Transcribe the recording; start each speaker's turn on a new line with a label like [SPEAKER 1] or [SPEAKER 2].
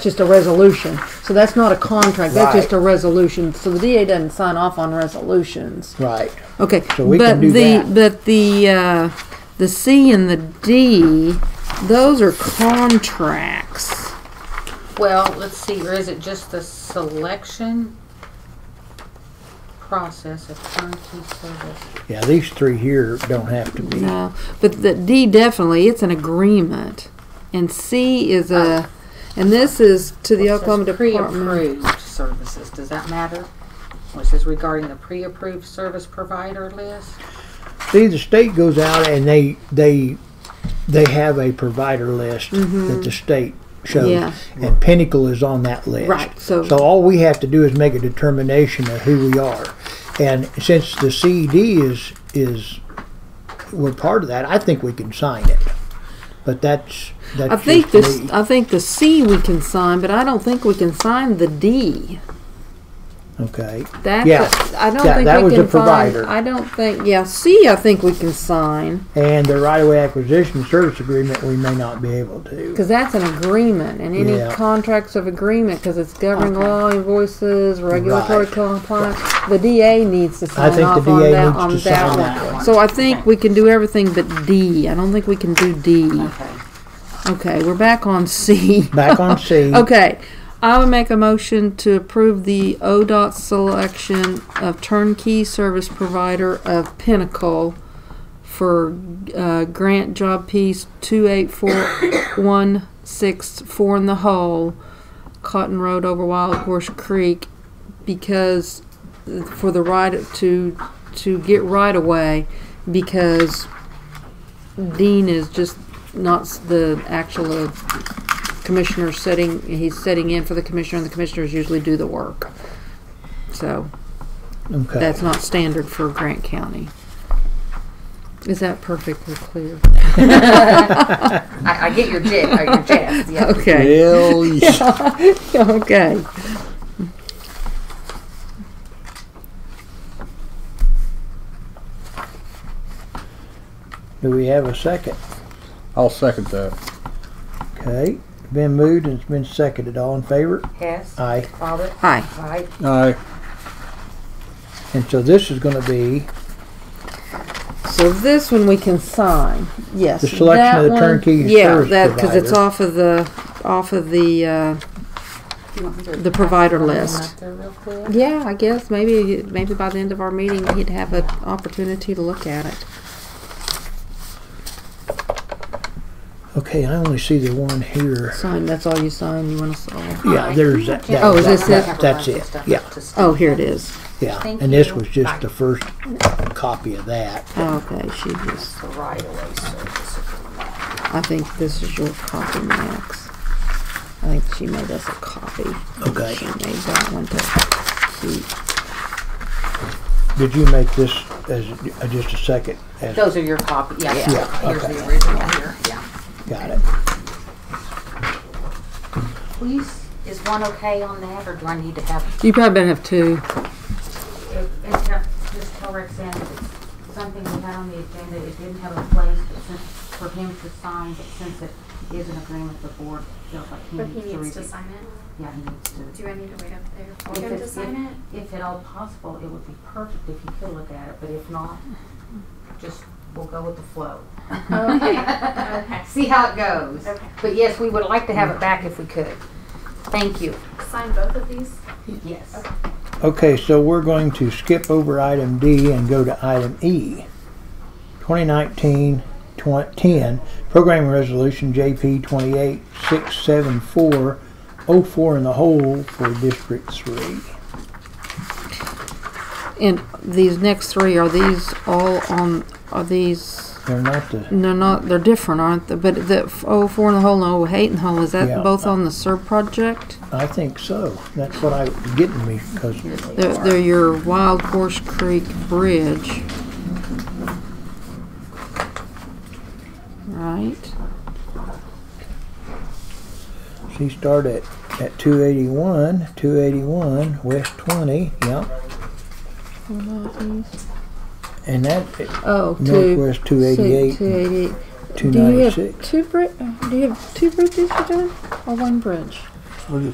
[SPEAKER 1] just a resolution. So that's not a contract, that's just
[SPEAKER 2] Right.
[SPEAKER 1] a resolution. So the DA doesn't sign off on resolutions.
[SPEAKER 2] Right.
[SPEAKER 1] Okay.
[SPEAKER 2] So we
[SPEAKER 1] but
[SPEAKER 2] can do
[SPEAKER 1] the,
[SPEAKER 2] that.
[SPEAKER 1] But the uh, the C and the D, those are contracts.
[SPEAKER 3] Well, let's see, or is it just the selection process of turnkey service?
[SPEAKER 2] Yeah, these three here don't have to be.
[SPEAKER 1] No, but the D definitely it's an agreement, and C is a, and this is to the
[SPEAKER 3] It says
[SPEAKER 1] Oklahoma Department.
[SPEAKER 3] Oh. Pre-approved services, does that matter? Which says regarding the pre-approved service provider list?
[SPEAKER 2] See, the state goes out and they, they, they have a provider list that the state
[SPEAKER 1] Mm-hmm. Yeah.
[SPEAKER 2] shows. And Pinnacle is on that list.
[SPEAKER 1] Right, so-
[SPEAKER 2] So all we have to do is make a determination of who we are. And since the CED is, is, we're part of that, I think we can sign it. But that's, that's
[SPEAKER 1] I think
[SPEAKER 2] just me.
[SPEAKER 1] this. I think the C we can sign, but I don't think we can sign the D.
[SPEAKER 2] Okay,
[SPEAKER 1] That's
[SPEAKER 2] Yeah.
[SPEAKER 1] I I don't
[SPEAKER 2] Yeah,
[SPEAKER 1] think
[SPEAKER 2] that
[SPEAKER 1] we
[SPEAKER 2] was
[SPEAKER 1] can
[SPEAKER 2] the provider.
[SPEAKER 1] sign. I don't think. Yeah, C. I think we can sign
[SPEAKER 2] and the right-of-way acquisition service agreement, we may not be able to.
[SPEAKER 1] because that's an agreement, and any
[SPEAKER 2] Yeah.
[SPEAKER 1] contracts of agreement because it's governing law, invoices, regulatory
[SPEAKER 2] Right.
[SPEAKER 1] compliance. The DA needs to sign
[SPEAKER 2] think the
[SPEAKER 1] off on
[SPEAKER 2] DA
[SPEAKER 1] that
[SPEAKER 2] needs
[SPEAKER 1] on
[SPEAKER 2] to
[SPEAKER 1] that
[SPEAKER 2] sign
[SPEAKER 1] one.
[SPEAKER 2] that one.
[SPEAKER 1] So I think we can do everything but D. I don't think we can do D.
[SPEAKER 3] Okay.
[SPEAKER 1] Okay, we're back on C.
[SPEAKER 2] Back on C.
[SPEAKER 1] Okay, I would make a motion to approve the ODOT selection of turnkey service provider of Pinnacle for uh, grant job piece two eight four one six four in the hole, Cotton Road over Wild Horse Creek, because uh, for the right to to get right away because Dean is just not s- the actual uh, commissioner sitting, he's sitting in for the commissioner, and the commissioners usually do the work. So
[SPEAKER 2] Okay.
[SPEAKER 1] that's not standard for Grant County. Is that perfectly clear?
[SPEAKER 3] I, I get your jig, or your jest, yeah.
[SPEAKER 1] Okay, okay.
[SPEAKER 2] Do we have a second?
[SPEAKER 4] I'll second that.
[SPEAKER 2] Okay, been moved and it's been seconded. All in favor?
[SPEAKER 3] Hess,
[SPEAKER 2] Aye.
[SPEAKER 3] Bobbit,
[SPEAKER 1] Hi,
[SPEAKER 3] Wright,
[SPEAKER 4] Aye.
[SPEAKER 2] And so this is gonna be
[SPEAKER 1] so this one we can sign, yes.
[SPEAKER 2] The selection of
[SPEAKER 1] that
[SPEAKER 2] the
[SPEAKER 1] one-
[SPEAKER 2] turnkey service
[SPEAKER 1] Yeah, that, cause it's
[SPEAKER 2] provider.
[SPEAKER 1] off of the, off of the, uh,
[SPEAKER 3] you want me to-
[SPEAKER 1] The provider
[SPEAKER 3] Run them
[SPEAKER 1] list.
[SPEAKER 3] up there real quick?
[SPEAKER 1] yeah, I guess, maybe, maybe by the end of our meeting, he'd have an opportunity to look at it.
[SPEAKER 2] okay. I only see the one here.
[SPEAKER 1] Sign, that's all you sign, you wanna sign?
[SPEAKER 2] Yeah, there's that. that
[SPEAKER 1] Oh, is this
[SPEAKER 2] that-
[SPEAKER 1] it?
[SPEAKER 2] That's it. Yeah,
[SPEAKER 1] Oh, here it is.
[SPEAKER 2] yeah.
[SPEAKER 3] Thank
[SPEAKER 2] And this
[SPEAKER 3] you.
[SPEAKER 2] was just the first copy of that.
[SPEAKER 1] Okay, she just.
[SPEAKER 3] The right of way service agreement.
[SPEAKER 1] I think this is your copy, Max. I think she made us a copy.
[SPEAKER 2] Okay.
[SPEAKER 1] She made that one to keep.
[SPEAKER 2] Did you make this as uh, just a second? As,
[SPEAKER 3] Those are your copy, yeah,
[SPEAKER 2] Yeah,
[SPEAKER 3] here's
[SPEAKER 2] okay.
[SPEAKER 3] the original here, yeah.
[SPEAKER 2] got it.
[SPEAKER 3] Please, is one okay on that, or do I need to have
[SPEAKER 1] You probably better have two.
[SPEAKER 3] It- It's got, just tell Roxanne that it's something we had on the agenda, it didn't have a place, but since, for him to sign, but since it is an agreement, the board feels like he
[SPEAKER 5] But
[SPEAKER 3] needs to
[SPEAKER 5] he
[SPEAKER 3] read it.
[SPEAKER 5] needs to sign it.
[SPEAKER 3] Yeah, he needs to.
[SPEAKER 5] Do I need to wait up there for
[SPEAKER 3] If
[SPEAKER 5] him to
[SPEAKER 3] it's-
[SPEAKER 5] sign it?
[SPEAKER 3] if- If at all possible, it would be perfect if you could look at it, but if not, just, we'll go with the flow.
[SPEAKER 5] Oh, Okay, okay.
[SPEAKER 3] See how it goes.
[SPEAKER 5] Okay.
[SPEAKER 3] But yes, we would like to have it back if we could. Thank you.
[SPEAKER 5] Sign both of these?
[SPEAKER 3] Yes.
[SPEAKER 2] Okay, so we're going to skip over item D and go to item E. 2019 10 Program Resolution JP 2867404 oh, in the hole for District 3.
[SPEAKER 1] And these next three, are these all on, are these,
[SPEAKER 2] They're not the,
[SPEAKER 1] they're not, they're different, aren't they? But the f- oh four in the hole and oh eight in the hole, is
[SPEAKER 2] Yeah.
[SPEAKER 1] that both on the SERB project?
[SPEAKER 2] I think so. That's what I getting me because
[SPEAKER 1] They're, they're your Wild Horse Creek Bridge. Right?
[SPEAKER 2] she started at 281, 281, West 20, yep. And that
[SPEAKER 1] Oh, two.
[SPEAKER 2] Northwest 288,
[SPEAKER 1] Two eighty-eight. Do you
[SPEAKER 2] 296.
[SPEAKER 1] have two bri- Do you have two bridges to do, or one bridge?
[SPEAKER 6] We're just